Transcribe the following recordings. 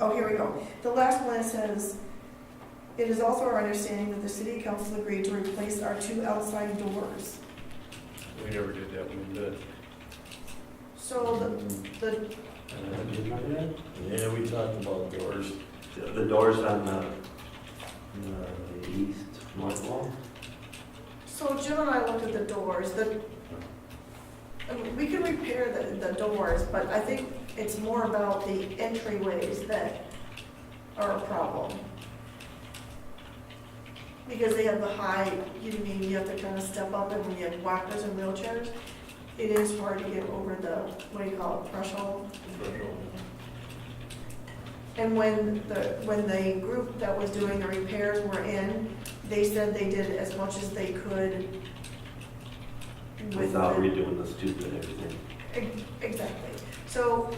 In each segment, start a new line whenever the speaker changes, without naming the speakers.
Oh, here we go. The last one says, "It is also our understanding that the city council agreed to replace our two outside doors."
We never did that one, did.
So the, the
Yeah, we talked about doors.
The doors on the, the east north wall?
So Jim and I looked at the doors, the, I mean, we can repair the, the doors, but I think it's more about the entryways that are a problem. Because they have the high, you mean, you have to kind of step up and when you have walkers and wheelchairs, it is hard to get over the, what do you call it, threshold. And when the, when the group that was doing the repairs were in, they said they did as much as they could. with
Without
the-
redoing the stupid everything.
Ex- Exactly. So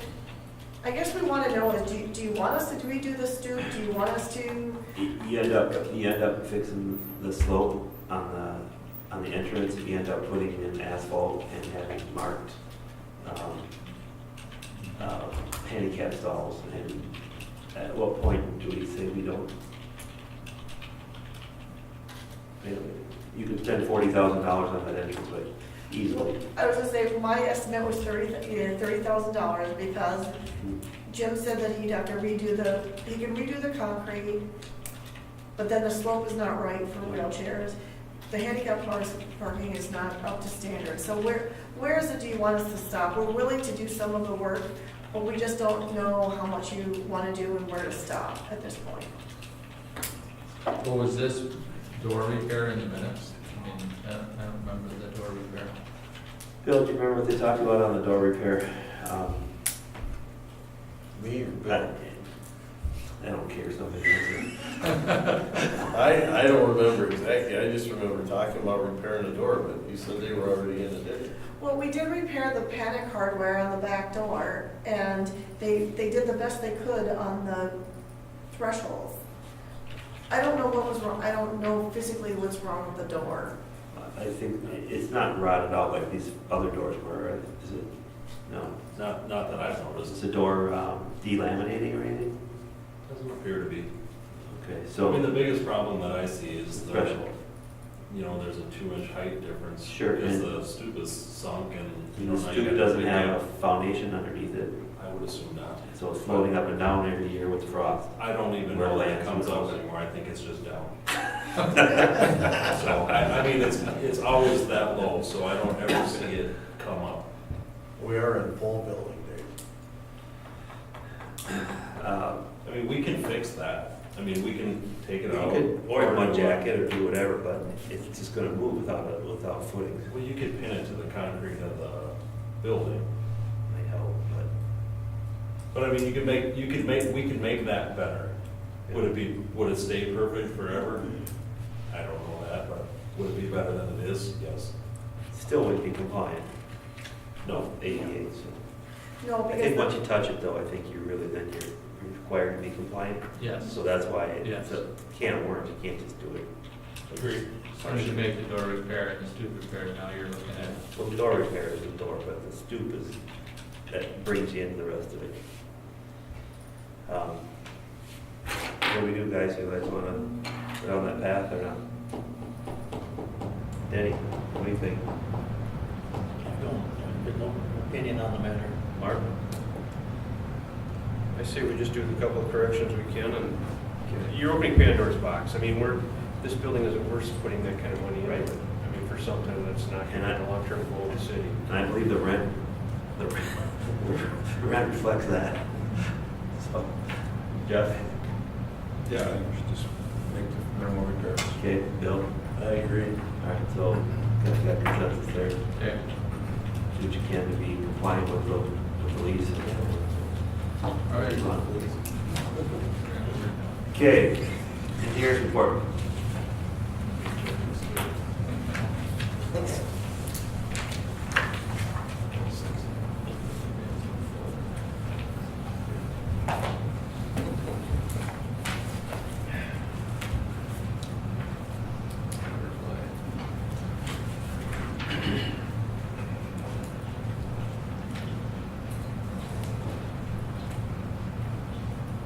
I guess we want to know is, do you, do you want us to redo the stoop? Do you want us to?
You you end up, you end up fixing the slope on the, on the entrance, you end up putting in asphalt and having marked, um, uh, handicap stalls, and at what point do we say we don't? You know, You could spend forty thousand dollars on that entrance, but easily.
I was gonna say, my estimate was thirty, yeah, thirty thousand dollars because Jim said that he'd have to redo the, he can redo the concrete, but then the slope is not right for wheelchairs. The handicap parks- parking is not up to standard. So where, where is it do you want us to stop? We're willing to do some of the work, but we just don't know how much you want to do and where to stop at this point.
Well, was this door repair in the minutes? I mean, I don't, I don't remember the door repair.
Bill, do you remember what they talked about on the door repair? Um,
Me or
I
Bill?
I don't care, somebody answer.
I, I don't remember exactly, I just remember talking about repairing the door, but you said they were already in it, didn't you?
Well, we did repair the panic hardware on the back door, and they, they did the best they could on the thresholds. I don't know what was wrong, I don't know physically what's wrong with the door.
I think it's not rotted out like these other doors were, is it? No,
Not, not that I've
is
noticed.
the door um, delaminating or anything?
Doesn't appear to be.
Okay,
I mean,
so,
the biggest problem that I see is the,
threshold.
you know, there's a two inch height difference.
Sure,
Because
and-
the stoop is sunk and, you know,
The
now you
stoop
have.
doesn't have a foundation underneath it,
I would assume not.
so it's floating up and down every year with frost.
I don't even
Where
know when
lands
it comes
would
up
also-
anymore, I think it's just down. So, I, I mean, it's, it's always that low, so I don't ever see it come up.
We are in full building, Dave.
Uh,
I mean, we can fix that, I mean, we can take
You
it out.
could
or
Uh, or mud
do-
jacket or do whatever, but it's just gonna move without, a- without footings.
Well, you could pin it to the concrete of the building.
Might help, but.
But I mean, you could make, you could make, we could make that better. Would it be, would it stay perfect forever? I don't know that, but would it be better than it is? Yes.
Still wouldn't be compliant,
No.
ADA, so.
No,
I
because
think once
the-
you touch it though, I think you really, then you're required to be compliant.
Yes,
So that's why it's
Yes.
a can of worms, you can't just do it.
Agreed.
as soon as you make the door repair and the stoop repair, now you're looking at
Well, the door repair is the door, but the stoop is, that brings you into the rest of it. Um, What do we do, guys, you guys wanna go down that path or not? Danny, what do you think?
Opinion on the matter.
Mark?
I say we just do the couple of corrections we can, and you're opening Pandora's box. I mean, we're, this building isn't worth putting that kind of money in.
Right.
I mean, for something that's not
And I-
gonna be the long-term goal of the city.
And I believe the rent, the rent, the rent reflects that. So, Jeff,
Yeah, I should just make the minimal repairs.
okay, Bill,
I agree.
all right, so, got got consensus there.
Okay.
Do what you can to be compliant with the, with the lease.
All right.
Okay, engineers report.